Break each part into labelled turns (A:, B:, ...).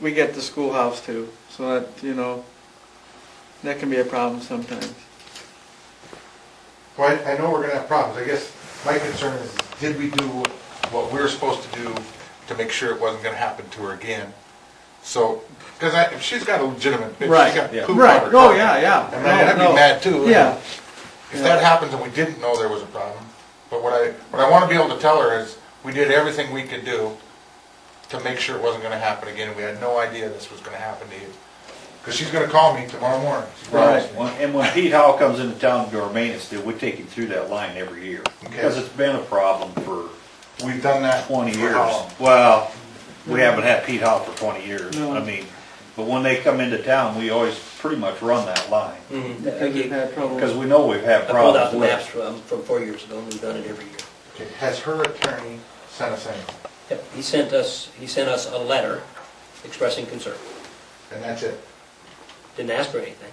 A: we get the schoolhouse too, so that, you know, that can be a problem sometimes.
B: Well, I- I know we're gonna have problems, I guess my concern is, did we do what we were supposed to do to make sure it wasn't gonna happen to her again? So, because I, if she's got a legitimate, if she's
A: Right,
B: got
C: yeah.
B: poop on
A: Right,
B: her
A: oh,
B: carpet,
A: yeah, yeah.
B: I mean, I'd
A: No,
B: be
A: no.
B: mad too.
A: Yeah,
B: If that happens and we didn't know there was a problem, but what I, what I wanna be able to tell her is, we did everything we could do to make sure it wasn't gonna happen again, we had no idea this was gonna happen to you. Because she's gonna call me tomorrow morning, she promised me.
C: When- And when Pete Hall comes into town to do our maintenance deal, we take him through that line every year. Because it's been a problem for
B: We've done that.
C: twenty
B: for
C: years.
B: how long?
C: Well, we haven't had Pete Hall for twenty years.
A: No.
C: I mean, but when they come into town, we always pretty much run that line.
A: because we've had trouble.
C: Because we know we've had
D: Mm-hmm. I pulled out
C: problems
D: the
C: with
D: maps
C: it.
D: from, from four years ago, and we've done it every year.
B: Okay, Has her attorney sent us anything?
D: Yep, he sent us, he sent us a letter expressing concern,
B: And that's it?
D: didn't ask for anything.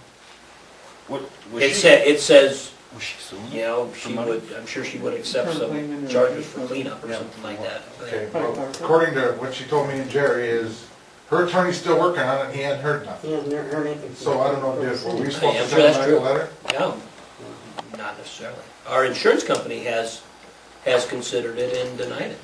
C: What- was
D: It
C: she-
D: said, it says,
C: Was she suing?
D: you know, she
C: money?
D: would, I'm sure she would accept
A: For cleaning
D: some
A: or-
D: charges for cleanup or
C: Yeah.
D: something like that.
B: Okay, well, according to what she told me and Jerry is, her attorney's still working on it, and he hadn't heard nothing.
E: He hasn't heard anything. from
B: So I don't know,
E: the
B: if were we
E: city.
B: supposed
D: Yeah,
B: to
D: I'm sure
B: send
D: that's
B: him a
D: true.
B: letter?
D: No, not necessarily. Our insurance company has, has considered it and denied it.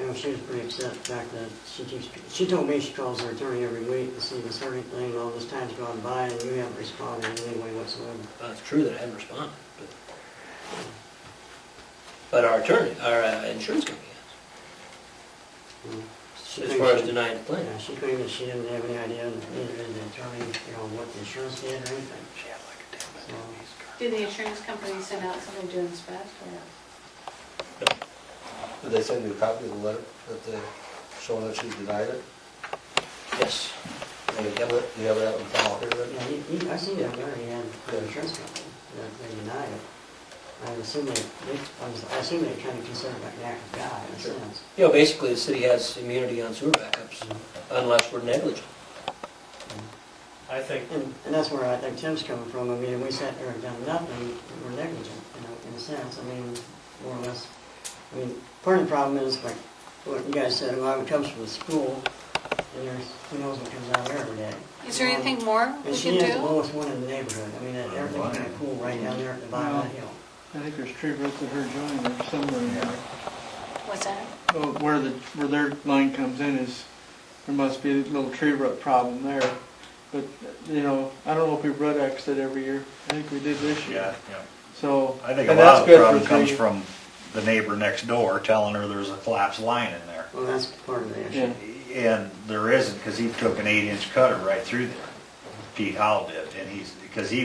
E: And she was pretty upset, the fact that she keeps, she told me she calls her attorney every week to see if it's heard anything, all this time's gone by and you haven't responded in any way whatsoever.
D: Well, it's true that I haven't responded, but, but our attorney, our uh, insurance company
E: Mm. She
D: has, as
E: claims
D: far as
E: she-
D: denying the claim.
E: Yeah, she claimed that she didn't have any idea, neither did the attorney, you know, what the insurance did or anything.
D: She had like a damn
E: So,
F: Did the insurance company send out something to inspect or?
G: Did they send you a copy of the letter that they, showing that she denied it?
D: Yes.
G: And you have it, you have that in file here then?
E: Yeah, he, he, I seen that letter he had for the insurance company, that they denied it. I assume they, they, I was- I assume they kind of considered that an act of God in a
D: Sure.
E: sense.
D: You know, basically, the city has immunity on sewer backups unless we're negligent.
H: I think,
E: And, and that's where I think Tim's coming from, I mean, we sat there and done nothing, we're negligent, you know, in a sense, I mean, more or less. I mean, part of the problem is, like, what you guys said, a lot of it comes from the school, and there's, who knows what comes out there every day.
F: Is there
E: Um,
F: anything more we
E: And she
F: can
E: is the
F: do?
E: lowest one in the neighborhood, I mean, that- everything's kind of cool right down there at the bottom of the hill.
A: I think there's tree roots of her joint or somewhere in there.
F: What's that?
A: Oh, Where the, where their line comes in is, there must be a little tree root problem there. But, you know, I don't know if we root Xed it every year. I think we did this
C: Yeah,
A: year.
C: yeah.
A: So,
C: I
A: and
C: think a lot
A: that's
C: of the
A: good for
C: problem comes
A: tree.
C: from the neighbor next door telling her there's a collapsed line in there.
E: Well, that's part of the issue.
A: Yeah.
C: And there isn't, because he took an eight-inch cutter right through there. Pete Howell did, and he's, because he,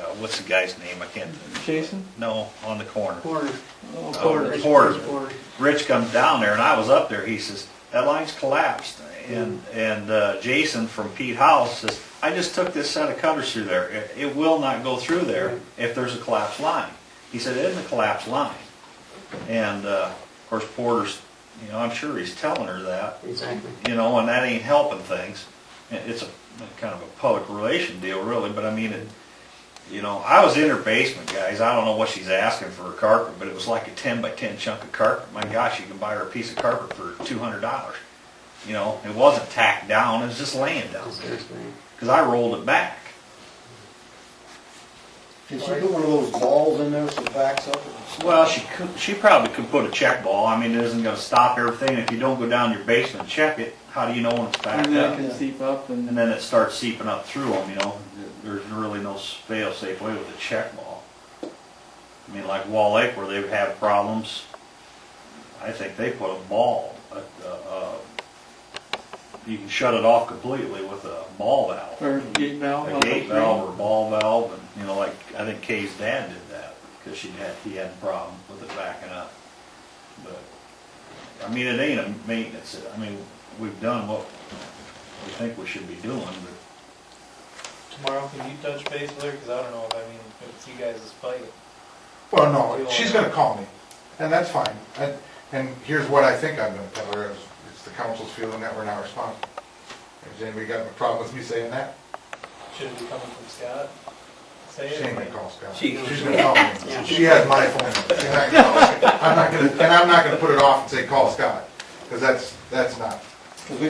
C: uh, what's the guy's name, I can't,
A: Jason?
C: no, on the corner.
E: Corner.
A: Oh,
C: Porter.
A: Porter.
C: Porter. Rich comes down there, and I was up there, he says, that line's collapsed. And, and uh, Jason from Pete Howell says, I just took this set of cutters through there, it, it will not go through there if there's a collapsed line. He said, it isn't a collapsed line. And, uh, of course, Porter's, you know, I'm sure he's telling her that,
E: Exactly.
C: you know, and that ain't helping things. It- It's a kind of a public relation deal, really, but I mean, it, you know, I was in her basement, guys. I don't know what she's asking for a carpet, but it was like a ten by ten chunk of carpet. My gosh, you can buy her a piece of carpet for two hundred dollars. You know, it wasn't tacked down; it was just laying down
E: Just everything.
C: because I rolled it back.
G: Did she put one of those balls in there so it backs up?
C: Well, she could, she probably could put a check ball. I mean, it isn't going to stop everything. If you don't go down your basement and check it, how do you know when it's backed
A: And then
C: up?
A: it can seep up
C: And
A: and,
C: then it starts seeping up through them, you know, there's really no fail-safe way with a check ball. I mean, like Wall Lake where they've had problems, I think they put a ball, a, a, a, you can shut it off completely with a ball valve.
A: or gate valve.
C: A
A: on the
C: gate
A: tree.
C: valve or ball valve, and, you know, like, I think Kay's dad did that, because she had, he had a problem with it backing up. But, I mean, it ain't a maintenance, I mean, we've done what we think we should be doing, but
H: tomorrow, can you touch base with her, because I don't know if, I mean, if it's you guys' fight.
B: Well, no, she's gonna call me, and that's fine. And, and here's what I think I'm gonna tell her, is it's the council's feeling that we're not responsible. Has anybody got a problem with me saying that?
H: Should it be coming from Scott? Say
B: She
H: it.
B: ain't gonna call Scott.
D: She-
B: She's gonna call
E: Yeah.
B: me. She has my phone. number. She's not gonna call me. I'm not gonna, and I'm not gonna put it off and say, call Scott, because that's, that's not.
A: 'Cause we